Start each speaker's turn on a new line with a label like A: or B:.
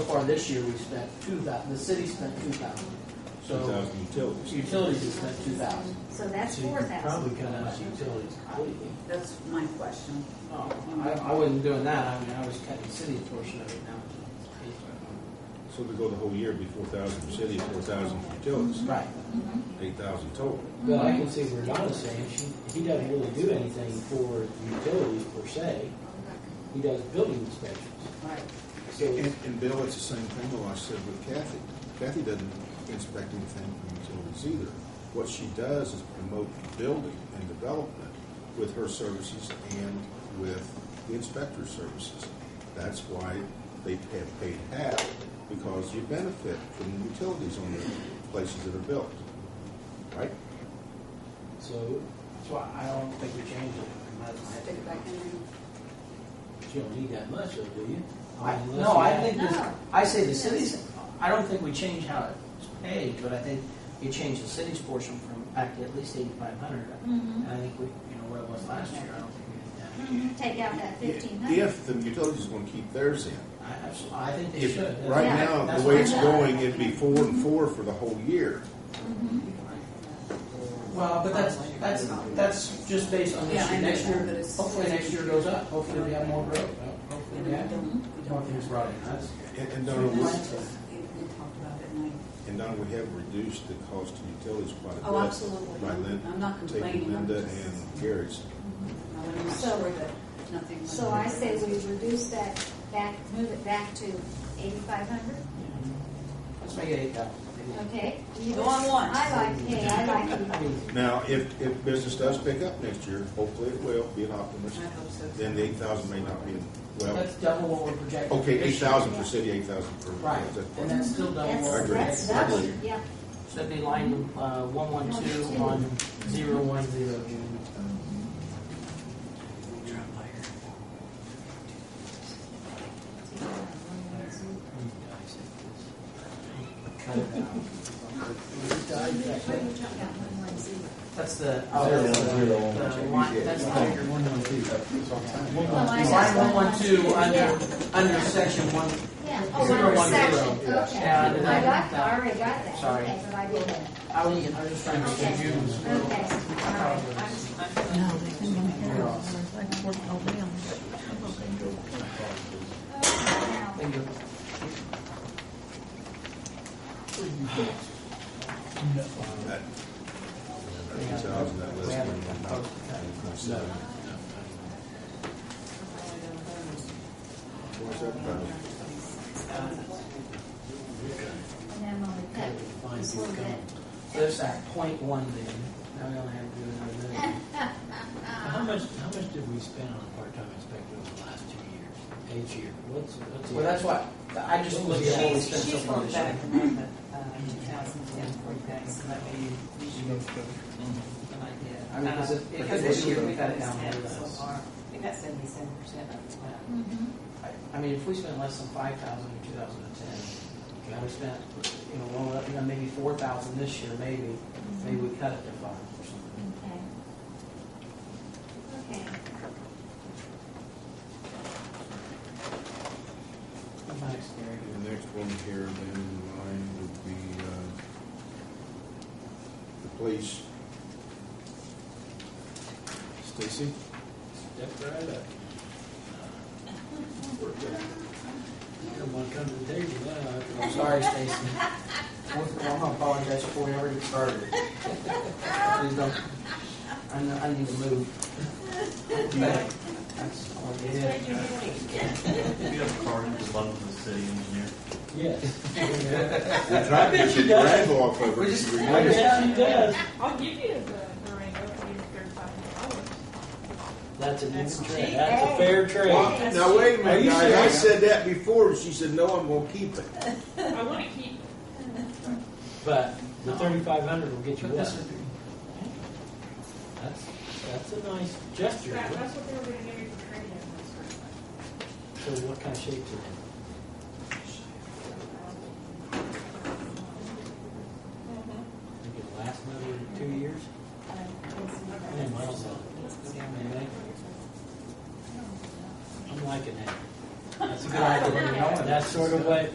A: far this year, we spent two thou, the city spent two thousand. So
B: 2,000 utilities.
A: utilities have spent two thousand.
C: So that's
A: So you
C: four
A: could
C: thousand.
A: Probably cut out utilities completely.
C: That's my question.
A: Oh, I, I wasn't doing that, I mean, I was cutting the city portion of it now.
B: So to go the whole year, it'd be 4,000 for city, 4,000 for utilities,
A: Right.
B: 8,000 total.
D: But I can see where Donna's saying, she, he doesn't really do anything for utilities per se. He does building inspections.
C: Right.
D: So,
E: And, and Bill, it's the same thing though I said with Kathy. Kathy doesn't inspect anything from utilities either. What she does is promote building and development with her services and with the inspector services. That's why they have paid half, because you benefit from the utilities on the places that are built, right?
D: so,
A: So I I don't think we changed it. We might as well have
C: Stick it back in there.
D: you don't need that much of, do you?
A: I,
D: mean, unless
A: no,
D: you
A: I
D: have-
A: think this,
C: No.
A: I say the cities, I don't think we change how it's paid, but I think you change the city's portion from back to at least eighty-five hundred.
C: Mhm.
A: And I think we, you know, what it was last year, I don't think we did
C: Mm-hmm. Take out that fifteen hundred.
E: If the utilities going to keep theirs in.
A: that. I absolutely, I think they
E: If,
A: should. That's-
E: right
C: Yeah,
E: now,
A: that's
E: the way
A: what
E: it's
A: I-
C: I'm-
E: going, it'd be four and four for the whole year.
C: Mm-hmm.
A: Well, but that's, that's, that's just based on
F: Yeah,
A: this
F: I
A: year,
F: know
A: next
F: that, but
A: year,
F: it's-
A: hopefully next year goes up, hopefully we have more growth, hopefully we have more things brought in, that's.
E: And, and Donna, we,
F: We talked about it, and
E: and Donna, we have reduced the cost of utilities quite a bit.
F: I- oh, absolutely.
E: By Lin-
F: I'm not
E: taking
F: complaining. I'm
E: Linda
F: just,
E: and Gary's.
F: I want to make
C: So-
F: sure that nothing.
C: So I say we reduce that back, move it back to eighty-five hundred,
A: Let's make it eight thousand.
C: okay?
F: Go on once.
C: I like, hey, I like you.
A: I mean,
E: Now, if, if business does pick up next year, hopefully it will, be an optimist,
F: I hope so.
E: then the eight thousand may not be, well,
A: that's double what we're projecting.
E: okay,
A: this
E: eight
A: year.
E: thousand for city, eight thousand for.
A: Right,
E: that's
A: and
E: fine.
A: that's still double
C: That's-
A: what we're
E: agree.
C: That's,
A: projecting.
E: I
C: double.
E: agree.
C: yeah.
A: Should be line uh, one one two one zero one zero. That's the, oh, that's the, the line, that's the bigger one.
C: Well, I just-
A: Line one one two
C: Yeah.
A: under, under section one,
C: Yeah, oh,
A: Zero,
C: one
A: one,
C: section, okay.
A: zero. Yeah, I did
C: I
A: that.
C: got, I already got that,
A: Sorry.
C: okay, but I did that.
A: I was, I was just trying to
C: Okay,
A: show you.
C: okay, all right.
G: No, they couldn't even hear us. I worked all day on this.
C: Now,
A: Thank you.
E: That eight thousand, that list.
A: We
E: may
A: haven't done
E: not-
A: both.
E: So- What's that about?
C: And then when we cut this little bit.
A: So There's that point one then, now we only have to do another million.
D: How much, how much did we spend on a part-time inspector over the last two years, each year? What's, what's?
A: Well, that's why, I just looked at what we spent
F: She's,
A: so
F: she's
A: far
F: going
A: this
F: back
A: year.
F: from the, uh, two thousand ten, forty back, so that may give you an idea.
A: I mean, 'cause it-
F: Uh,
A: it-
F: Because
A: it
F: this year
A: was-
F: we got it down
A: Yeah.
F: so far, we got seventy-seven percent of the plan.
C: Mhm.
A: I- I mean, if we spent less than five thousand in two thousand and ten, you know, we spent, you know, well, you know, maybe four thousand this year, maybe, maybe we cut it to five or something.
C: Okay. Okay.
A: My experience.
E: The next one here then in line would be uh, the police. Stacy?
D: Step right up. You're the one coming to the table now.
A: I'm sorry, Stacy. I'm gonna apologize before we ever get started. Please don't, I, know- I need to move. That's all I did.
H: Do you have a card at the bottom of the city engineer?
D: Yes.
E: I bet you does. off of her.
A: We just-
E: You
A: I
E: realize-
D: Yes, she does.
I: I'll give you the Durango for your thirty-five dollars.
D: That's a
F: That's
D: good
F: cheap.
D: trade. That's a fair trade.
E: Well, Now, wait a
D: Are
E: minute,
D: you
E: guys, I
D: serious?
E: said that before, and she said, no, I'm gonna keep it.
I: I want to keep
D: But the thirty-five hundred will get you
A: Put this
D: what?
A: in there.
D: That's, that's a nice gesture.
I: that. That's what they were going to give you for training.
D: So what kind of shape is it? Think it'll last another two years? Yeah, miles on it. Maybe. I'm liking that. That's a good idea. That's sort of what,